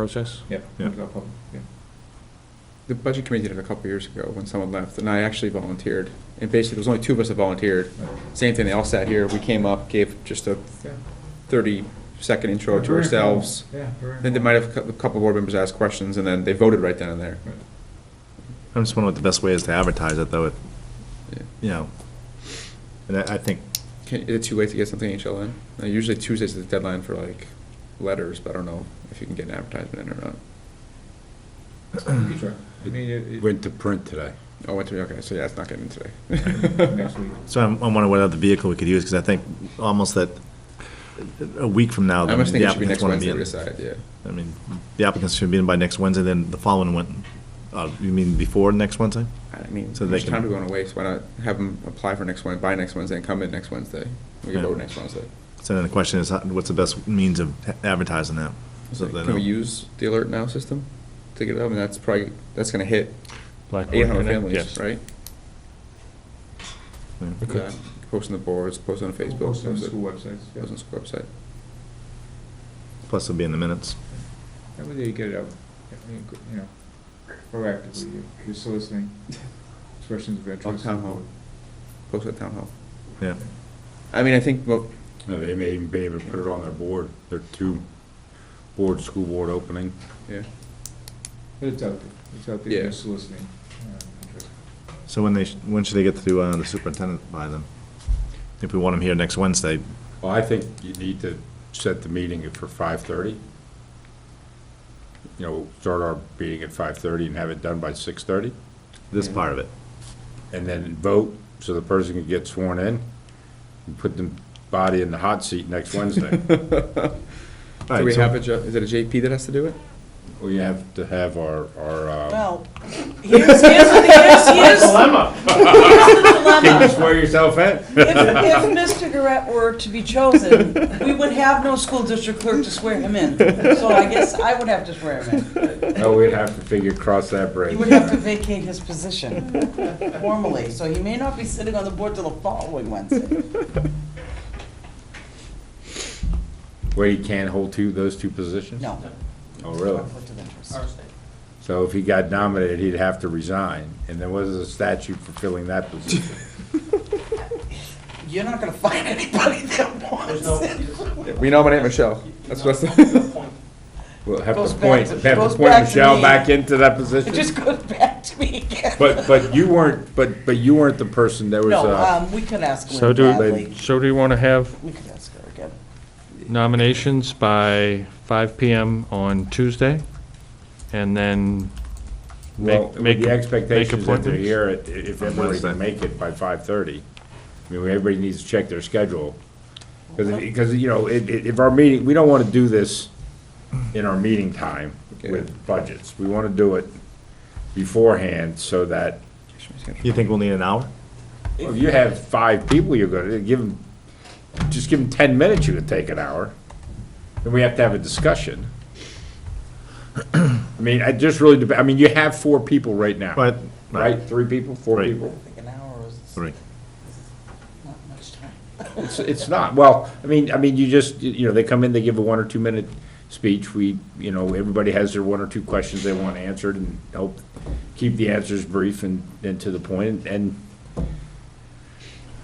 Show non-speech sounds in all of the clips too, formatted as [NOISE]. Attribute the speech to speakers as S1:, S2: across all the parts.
S1: process?
S2: Yeah.
S3: Yeah.
S2: go public, yeah.
S4: The budget committee did it a couple years ago when someone left, and I actually volunteered. And basically, there was only two of us that volunteered.
S2: Right.
S4: Same thing, they all sat here, we came up, gave just a
S2: Yeah.
S4: thirty-second intro to
S2: Very informal,
S4: ourselves.
S2: Yeah, very.
S4: Then they might have, a couple board members asked questions, and then they voted right then and there.
S2: informal. Right.
S3: I'm just wondering what the best way is to advertise it, though, if,
S4: Yeah.
S3: you know, and I, I think,
S4: Can, is it too late to get something HL in? Uh, Usually Tuesdays is the deadline for like letters, but I don't know if you can get an advertisement in or not.
S2: You try. I mean, it, it,
S5: Went to print today.
S4: Oh, went to, okay, so yeah, it's not getting in today.
S2: next week.
S3: so I'm, I'm wondering what other vehicle we could use, because I think almost that, a week from now,
S4: I
S3: the
S4: must think it should be
S3: applicants
S4: next
S3: want to
S4: Wednesday
S3: be
S4: to
S3: in.
S4: decide, yeah.
S3: I mean, the applicants should be in by next Wednesday, then the following one, uh, you mean before next Wednesday?
S4: I mean,
S3: So they
S4: there's
S3: can-
S4: time to go on a waste, why not have them apply for next Wednesday, by next Wednesday, and come in next Wednesday? We
S3: Yeah.
S4: can vote next Wednesday.
S3: So then the question is, how- what's the best means of advertising that? So they
S4: Can we
S3: know.
S4: use the alert now system to get it up, and that's probably, that's gonna hit
S1: Blackboard
S4: eight hundred
S1: Connect?
S4: families,
S1: Yes.
S4: right?
S3: Yeah.
S1: Okay.
S4: Yeah. Post on the boards, post on Facebook,
S2: Post
S4: post
S2: on
S4: on
S2: school websites, yeah.
S4: the school website.
S3: Plus it'll be in the minutes.
S2: That way they get it out, I mean, you know, proactively, you're- you're soliciting expressions of
S4: On
S2: interest.
S4: town hall, post at town hall.
S3: Yeah.
S4: I mean, I think, well,
S5: Uh, They may even be able to put it on their board, their two board, school board opening.
S4: yeah,
S2: But it's out there, it's out there,
S4: Yeah.
S2: you're soliciting. uh, interest.
S3: So when they, sh- when should they get to uh, the superintendent by then? If we want them here next Wednesday,
S5: Well, I think you need to set the meeting for five-thirty. You know, start our meeting at five-thirty and have it done by six-thirty,
S3: this part of it.
S5: and then vote, so the person can get sworn in, and put the body in the hot seat next Wednesday.
S4: [LAUGHS]
S3: All
S4: do
S3: right,
S4: we
S3: so-
S4: have a, J- is it a JP that has to do it?
S5: We have to have our, our, uh,
S6: Well, here's, here's, the- here's, here's. Dilemma. Here's the
S5: can you
S6: dilemma.
S5: swear yourself in?
S6: [LAUGHS] If, if Mr. Garrett were to be chosen, we would have no school district clerk to swear him in. So I guess I would have to swear him in.
S2: uh,
S5: Oh, we'd have to figure, cross that bridge.
S6: He would have to vacate his position
S2: [LAUGHS]
S6: formally, so he may not be sitting on the board till the following Wednesday.
S5: Where you can't hold two, those two positions?
S6: No.
S5: Oh, really?
S6: Conflict of interest.
S5: So if he got nominated, he'd have to resign, and there was a statute for filling that position.
S6: You're not gonna find anybody that wants it.
S4: We nominate Michelle, that's what's,
S3: [LAUGHS]
S5: We'll have
S6: Goes
S5: to
S6: back
S5: point,
S6: to-
S5: have to
S6: goes
S5: point
S6: back to
S5: Michelle
S6: me.
S5: back into that
S6: It
S5: position.
S6: just goes back to me again.
S5: But, but you weren't, but, but you weren't the person, there was uh,
S6: No,
S5: a,
S6: um, we could ask
S1: So
S6: Lynn
S1: do,
S6: Bradley.
S1: so do you want to have
S6: We could ask her again.
S1: nominations by 5 PM on Tuesday? And then
S5: well,
S1: make- make-
S5: with the expectation
S1: make
S5: that they're
S1: appointments?
S5: here, i- if everybody
S3: Wednesday.
S5: can make it by five-thirty. I mean, everybody needs to check their schedule, because, because, you know, if, if our meeting, we don't want to do this in our meeting time with budgets. We want to do it beforehand, so that
S3: You think we'll need an hour?
S5: Well, If you have five people, you're gonna, give them, just give them ten minutes, you can take an hour. Then we have to have a discussion. I mean, I just really, dep- I mean, you have four people right now.
S3: Right, right.
S5: Right, three people, four
S3: Right.
S5: people?
S6: I think an hour is
S3: Three.
S6: not much time.
S5: It's, it's not, well, I mean, I mean, you just, you you know, they come in, they give a one or two minute speech, we, you know, everybody has their one or two questions they want answered, and help keep the answers brief and, and to the point, and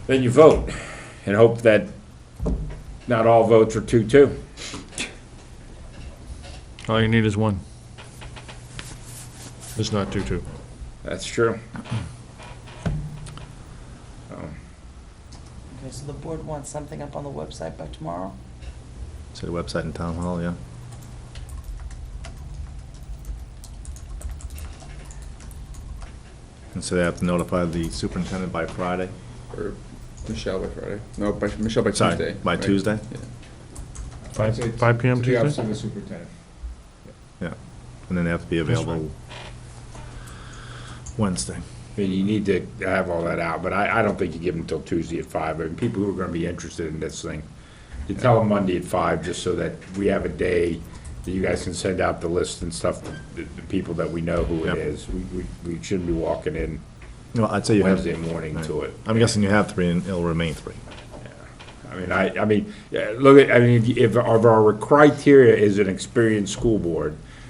S5: then you vote, and hope that not all votes are two-two.
S1: all you need is one. It's not 2-2.
S5: That's true.
S6: Okay, so the board wants something up on the website by tomorrow?
S3: City website and town hall, yeah. And so they have to notify the superintendent by Friday?
S4: or Michelle by Friday, no, by, Michelle by
S3: Sorry,
S4: Tuesday.
S3: by
S4: right?
S3: Tuesday?
S4: Yeah.
S1: Five-
S2: So it's
S1: five PM
S2: To the office
S1: Tuesday?
S2: of the superintendent.
S3: Yeah. And then they have to be
S1: That's right.
S3: available Wednesday.
S5: I mean, you need to have all that out, but I, I don't think you give them till Tuesday at five, I mean, people who are gonna be interested in this thing. You tell them Monday at five, just so that we have a day that you guys can send out the list and stuff, the, the people that we know who
S3: Yep.
S5: it is. We, we, we shouldn't be walking in
S3: Well, I'd say you have,
S5: Wednesday morning to it.
S3: I'm guessing you have three and it'll remain three.
S5: I mean, I, I mean, yeah, look, at I mean, if, if our our criteria is an experienced school board,